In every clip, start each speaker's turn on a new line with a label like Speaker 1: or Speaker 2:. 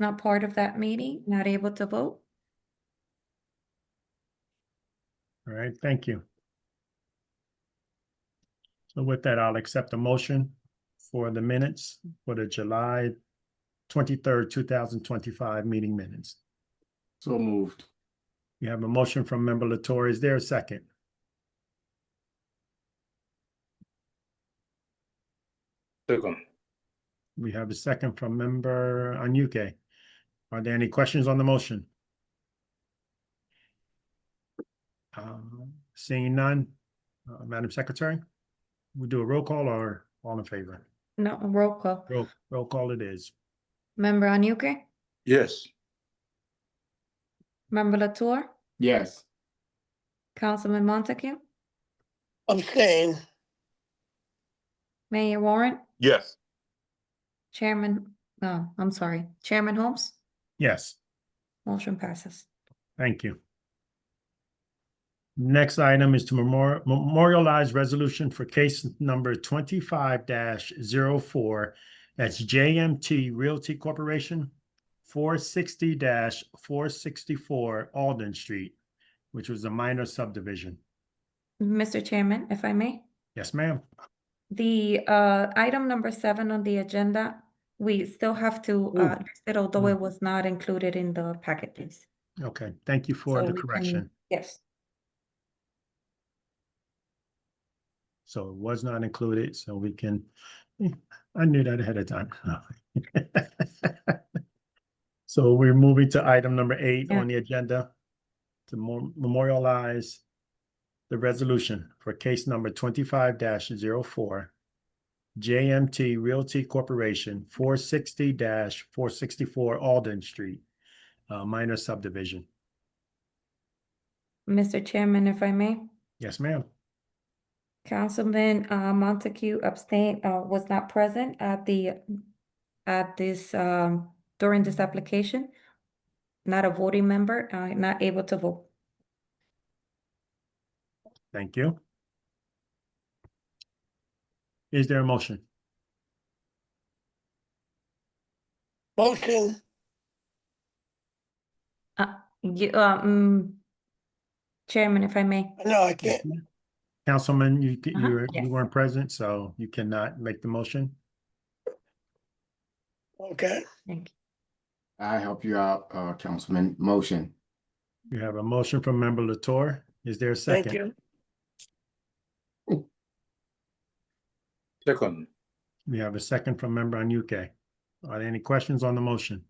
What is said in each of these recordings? Speaker 1: not part of that meeting, not able to vote.
Speaker 2: All right, thank you. So with that, I'll accept a motion for the minutes for the July twenty-third, two thousand twenty-five meeting minutes.
Speaker 3: So moved.
Speaker 2: You have a motion from member Latori. Is there a second?
Speaker 3: Second.
Speaker 2: We have a second from member Anuké. Are there any questions on the motion? Um, Seeing none, uh, Madam Secretary, we do a roll call or all in favor?
Speaker 1: No, roll call.
Speaker 2: Roll, roll call it is.
Speaker 1: Member Anuké,
Speaker 3: Yes.
Speaker 1: member Latour,
Speaker 3: Yes.
Speaker 1: Councilman Montague,
Speaker 4: abstain,
Speaker 1: Mayor Warren,
Speaker 3: Yes.
Speaker 1: Chairman, no, I'm sorry, Chairman Holmes,
Speaker 2: Yes.
Speaker 1: motion passes.
Speaker 2: Thank you. Next item is to memor- memorialize resolution for case number twenty-five 4 That's JMT Realty Corporation, four sixty four sixty-four Alden Street, which was a minor subdivision.
Speaker 1: Mr. Chairman, if I may,
Speaker 2: Yes, ma'am.
Speaker 1: the uh item number seven on the agenda, we still have to
Speaker 2: Ooh.
Speaker 1: uh list it, although it
Speaker 2: Mm.
Speaker 1: was not included in the packet, please.
Speaker 2: Okay, thank you for
Speaker 1: So we
Speaker 2: the
Speaker 1: can-
Speaker 2: correction.
Speaker 1: Yes,
Speaker 2: So it was not included, so we can, I knew that ahead of time. So we're moving to item number eight
Speaker 1: Yeah.
Speaker 2: on the agenda to mo- memorialize the resolution for case number twenty-five 4 JMT Realty Corporation, four sixty four sixty-four Alden Street, uh, minor subdivision.
Speaker 1: Mr. Chairman, if I may,
Speaker 2: Yes, ma'am.
Speaker 1: Councilman uh Montague abstained, uh was not present at the at this um during this application. Not a voting member, uh not able to vote.
Speaker 2: Thank you. Is there a motion?
Speaker 4: motion,
Speaker 1: You, uh, mm, Chairman, if I may,
Speaker 4: no, I
Speaker 2: Yes,
Speaker 4: can't,
Speaker 2: ma'am. Councilman, you, ca-
Speaker 1: Uh-huh,
Speaker 2: you were-
Speaker 1: yes.
Speaker 2: you weren't present, so you cannot make the motion.
Speaker 4: okay,
Speaker 1: thank you.
Speaker 5: I help you out, uh, Councilman. Motion.
Speaker 2: You have a motion from member Latour. Is there a
Speaker 4: thank
Speaker 2: second?
Speaker 4: you,
Speaker 3: Second.
Speaker 2: We have a second from member Anuké. Are there any questions on the motion?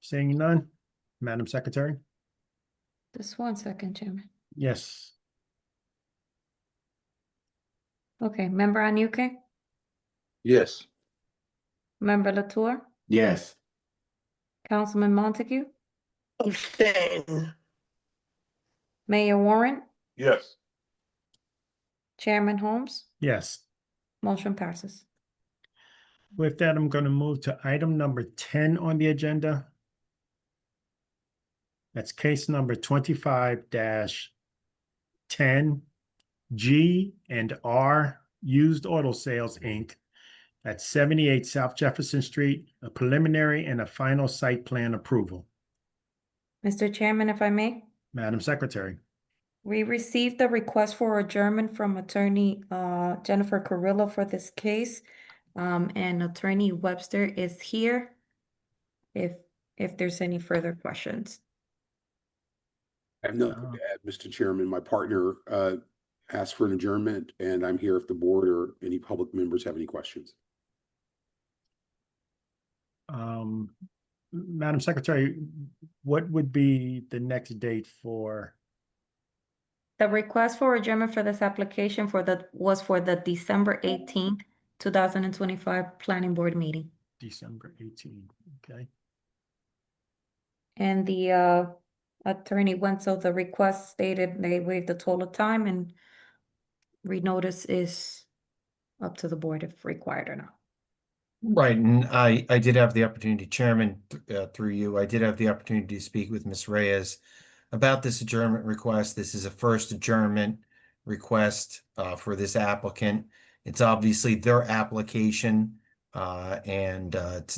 Speaker 2: Seeing none, Madam Secretary?
Speaker 1: Just one second, Chairman.
Speaker 2: Yes.
Speaker 1: Okay, member Anuké,
Speaker 3: Yes.
Speaker 1: member Latour,
Speaker 5: Yes.
Speaker 1: Councilman Montague,
Speaker 4: abstain,
Speaker 1: Mayor Warren,
Speaker 3: Yes.
Speaker 1: Chairman Holmes,
Speaker 2: Yes.
Speaker 1: motion passes.
Speaker 2: With that, I'm gonna move to item number ten on the agenda. That's case number twenty-five ten G and R Used Auto Sales, Inc. At seventy-eight South Jefferson Street, a preliminary and a final site plan approval.
Speaker 1: Mr. Chairman, if I may,
Speaker 2: Madam Secretary,
Speaker 1: we received a request for adjournment from attorney uh Jennifer Carrillo for this case. Um, and attorney Webster is here. If if there's any further questions.
Speaker 6: I have nothing
Speaker 2: Uh,
Speaker 6: to add, Mr. Chairman. My partner uh, asked for an adjournment, and I'm here if the board or any public members have any questions.
Speaker 2: um, Madam Secretary, what would be the next date for?
Speaker 1: The request for adjournment for this application for the, was for the December eighteenth, two thousand and twenty-five planning board meeting.
Speaker 2: December 18, okay?
Speaker 1: And the uh attorney went, so the request stated they waived the total time and renotice is up to the board if required or not.
Speaker 7: Right, and I, I did have the opportunity, Chairman, th- uh, through you, I did have the opportunity to speak with Ms. Reyes about this adjournment request. This is a first adjournment request uh, for this applicant. It's obviously their application. um, Uh, and, uh, to